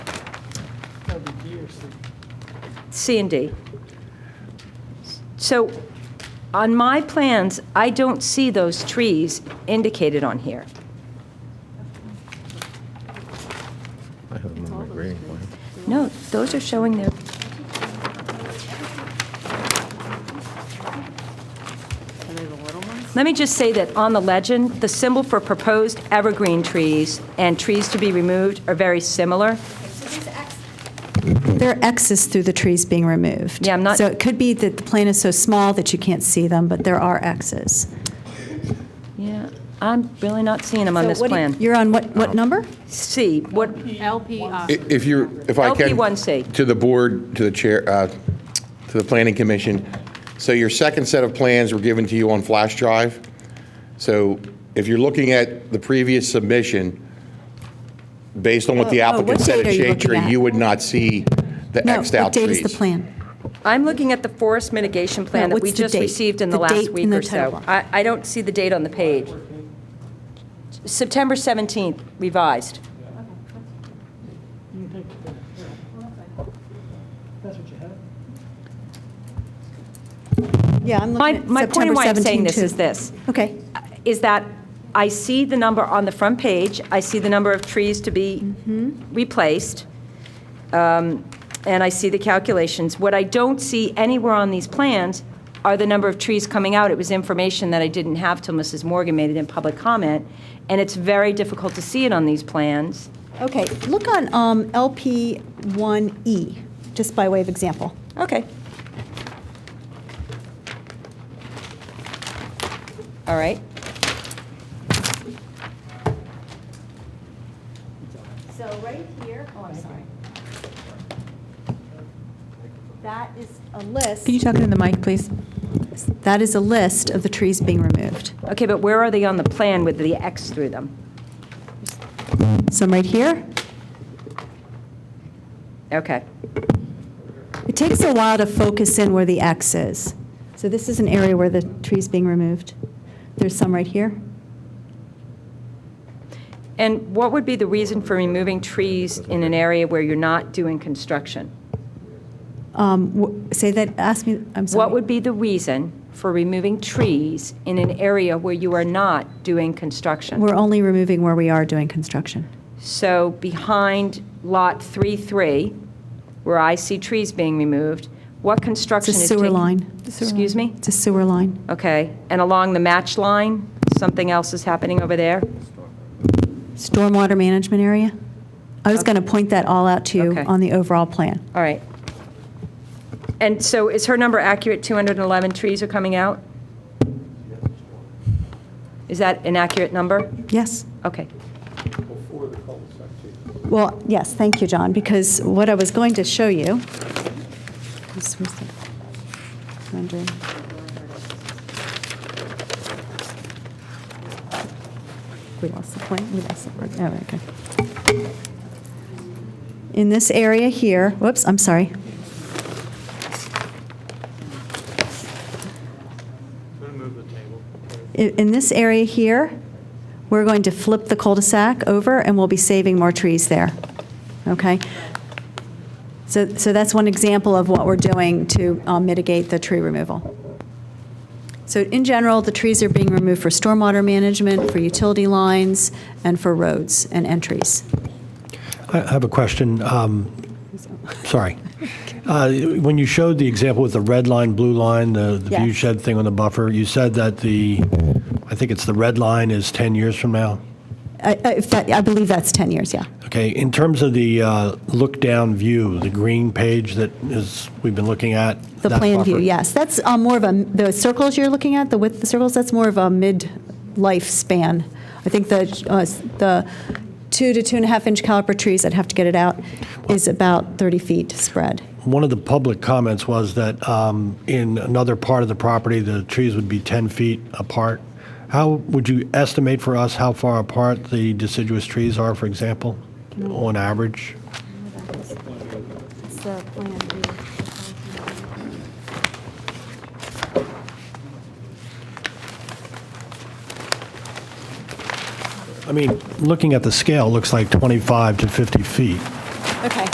probably B or C. C and D. So on my plans, I don't see those trees indicated on here. I have them on my grading plan. No, those are showing their, Are they the little ones? let me just say that on the legend, the symbol for proposed evergreen trees and trees to be removed are very similar. There are X's through the trees being removed. Yeah, I'm not- So it could be that the plant is so small that you can't see them, but there are X's. Yeah, I'm really not seeing them on So this what do you- plan. You're on what, what number? C, what, LPI. I- If you, if I can. LP1C. To the board, to the chair, uh, to the planning commission. So your second set of plans were given to you on flash drive. So if you're looking at the previous submission, based on what the Oh, oh, applicant what said date at are you Shade looking Tree, at? you would not see the No, Xed out what trees. date is the plan? I'm looking at the forest mitigation plan No, that we what's the just date? received in the The last date week and the or so. title. I, I don't see the date on the page. September 17th revised. You can take that. That's what you have? Yeah, I'm My, looking at my point in September why I'm 17, saying this too. is this, Okay. is that I see the number on the front page, I see the number of trees to be replaced, um, and I see the calculations. What I don't see anywhere on these plans are the number of trees coming out. It was information that I didn't have till Mrs. Morgan made it in public comment, and it's very difficult to see it on these plans. Okay, look on um, LP 1E, E, just by way of example. Okay. All right. So right here, oh, I'm sorry. That is a list. Can you talk into the mic, please? That is a list of the trees being removed. Okay, but where are they on the plan with the X through them? Some right here. Okay. It takes a while to focus in where the X is. So this is an area where the tree's being removed. There's some right here. And what would be the reason for removing trees in an area where you're not doing construction? Um, wh- Say that, ask me, I'm sorry. What would be the reason for removing trees in an area where you are not doing construction? We're only removing where we are doing construction. So behind Lot 3-3, where I see trees being removed, what It's a construction is taking? sewer line. Excuse me? It's a sewer line. Okay, and along the match line, something else is happening over there? Stormwater management area. I was going to point that all out to you Okay. on the overall plan. All right. And so is her number accurate, 211 trees are coming out? Is that an accurate number? Yes? Okay. Well, yes, thank you, John, because what I was going to show you. this was the- rendering. We lost the point, we lost the word, oh, okay. In this area here, whoops, I'm sorry. I- In this area here, we're going to flip the cul-de-sac over, and we'll be saving more trees there, okay? So, so that's one example of what we're doing to um, mitigate the tree removal. So in general, the trees are being removed for stormwater management, for utility lines, and for roads and entries. I I have a question. um, Sorry. Uh, When you showed the example with the red line, blue line, the the Yeah. view shed thing on the buffer, you said that the, I think it's the red line is 10 years from now? I, I- if that- I believe that's 10 years, yeah. Okay, in terms of the uh, look-down view, the green page that is, we've been looking at? The that plan view, buffer, yes. That's um, more of a, the circles you're looking at, the width of the circles, that's more of a mid-life span. I think the, uh, the two to two and a half inch caliper trees, I'd have to get it out, is about 30 feet spread. One of the public comments was that um, in another part of the property, the trees would be 10 feet apart. How would you estimate for us how far apart the deciduous trees are, for example, on average? I mean, looking at the scale, it looks like 25 to 50 feet. Okay.